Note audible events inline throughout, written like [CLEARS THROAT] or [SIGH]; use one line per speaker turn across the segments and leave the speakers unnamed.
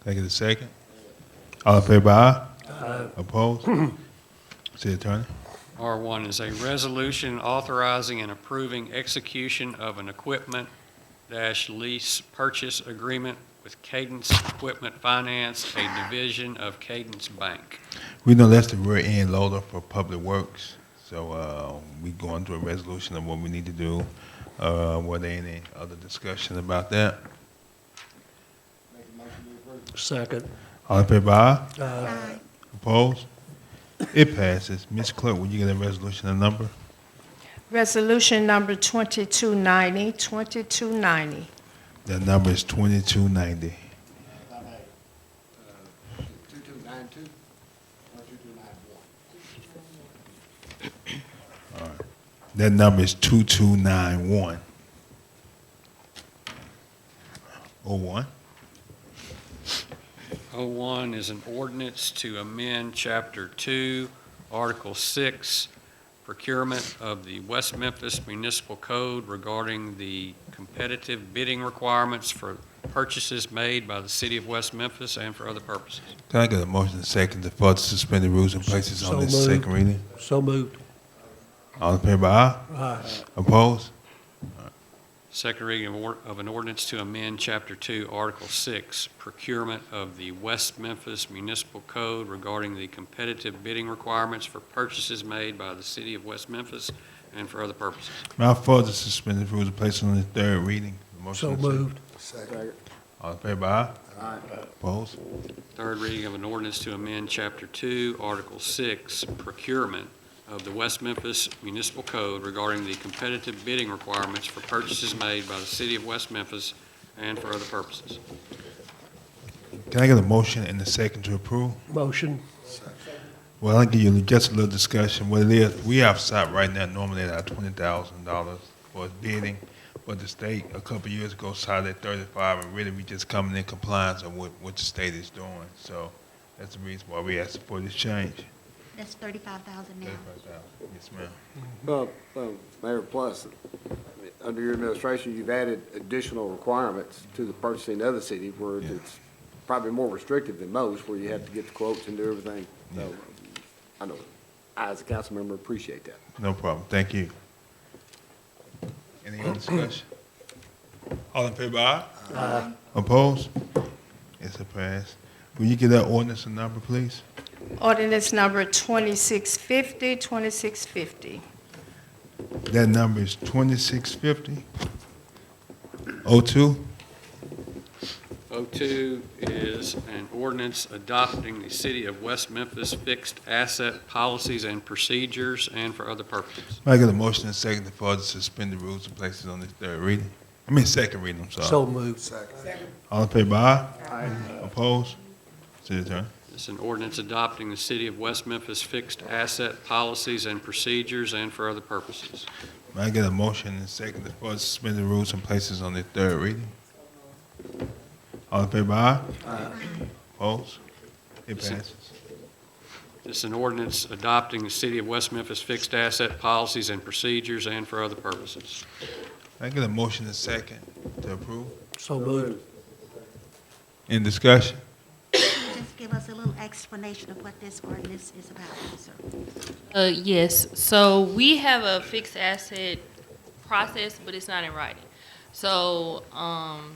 Can I get a second? All in favor, aye? [CLEARS THROAT] Opposed? City Attorney?
R1 is a resolution authorizing and approving execution of an equipment dash lease purchase agreement with Cadence Equipment Finance, a division of Cadence Bank.
We know that's the rear end loader for Public Works, so uh, we going to a resolution of what we need to do. Uh, Were there any other discussion about that?
Second.
All in favor, aye?
Aye.
Opposed? It passes. Ms. Clerk, will you get a resolution and number?
Resolution number 2290, 2290.
The number is 2290.
2292 or 2291?
That number is 2291. Oh, one?
O1 is an ordinance to amend Chapter 2, Article 6, procurement of the West Memphis Municipal Code regarding the competitive bidding requirements for purchases made by the city of West Memphis and for other purposes.
Can I get a motion and second to further suspend the rules and places on
So
this
moved.
second reading?
So moved.
All in favor, aye?
Aye.
Opposed?
Second reading of or- of an ordinance to amend Chapter 2, Article 6, procurement of the West Memphis Municipal Code regarding the competitive bidding requirements for purchases made by the city of West Memphis and for other purposes.
May I further suspend the rules and places on the third reading? Motion
So
and second.
moved.
Second.
All in favor, aye? Opposed?
Third reading of an ordinance to amend Chapter 2, Article 6, procurement of the West Memphis Municipal Code regarding the competitive bidding requirements for purchases made by the city of West Memphis and for other purposes.
Can I get a motion and a second to approve?
Motion.
Well, I'll give you just a little discussion. What it is, we outside right now normally at our twenty thousand dollars for bidding, but the state a couple of years ago started at thirty-five, and really we just coming in compliance of what, what the state is doing. So that's the reason why we asked for this change.
That's thirty-five thousand now.
$35,000. Yes, ma'am.
Well, well, Mayor, plus, I mean, under your administration, you've added additional requirements to the purchasing of the city where
Yeah.
it's probably more restrictive than most, where you have to get the quotes and do everything. So I know, I as a council member appreciate that.
No problem. Thank you. Any other discussion? All in favor, aye? Aye. Opposed? It's a pass. Will you give that ordinance a number, please?
Ordinance number 2650, 2650.
That number is twenty-six fifty. Oh two,
O2 is an ordinance adopting the City of West Memphis fixed asset policies and procedures and for other purposes.
I get a motion and second to further suspend the rules and places on this third reading. I mean, second reading, I'm sorry.
So moved.
All in favor, aye? Opposed? City Attorney.
It's an ordinance adopting the City of West Memphis fixed asset policies and procedures and for other purposes.
May I get a motion and second to further suspend the rules and places on this third reading? All in favor, aye? Opposed? It passes.
It's an ordinance adopting the City of West Memphis fixed asset policies and procedures and for other purposes.
May I get a motion and second to approve?
So moved.
In discussion?
Just give us a little explanation of what this ordinance is about, sir.
Uh, yes, so we have a fixed asset process, but it's not in writing. So, um,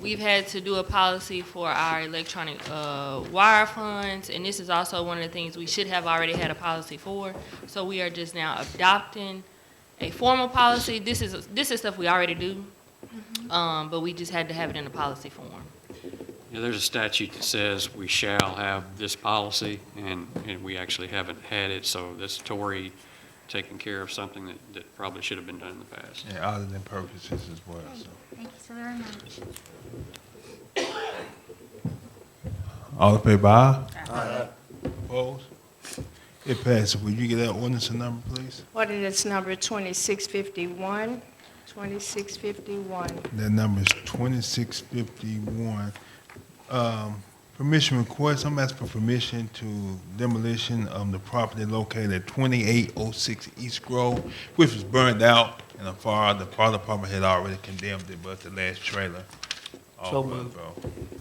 we've had to do a policy for our electronic, uh, wire funds, and this is also one of the things we should have already had a policy for. So we are just now adopting a formal policy. This is, this is stuff we already do, um, but we just had to have it in a policy form.
Yeah, there's a statute that says we shall have this policy, and, and we actually haven't had it, so this Tory taking care of something that, that probably should have been done in the past.
And other than purposes as well, so.
Thank you so very much.
All in favor, aye? Opposed? It passes. Will you get that ordinance a number, please?
Ordinance number 2651, 2651.
That number is twenty-six fifty-one. Um, permission request, I'm asking for permission to demolition of the property located at twenty-eight oh six East Grove, which was burned out, and the fire, the fire department had already condemned it, but the last trailer. off
So
of
moved.
Grove.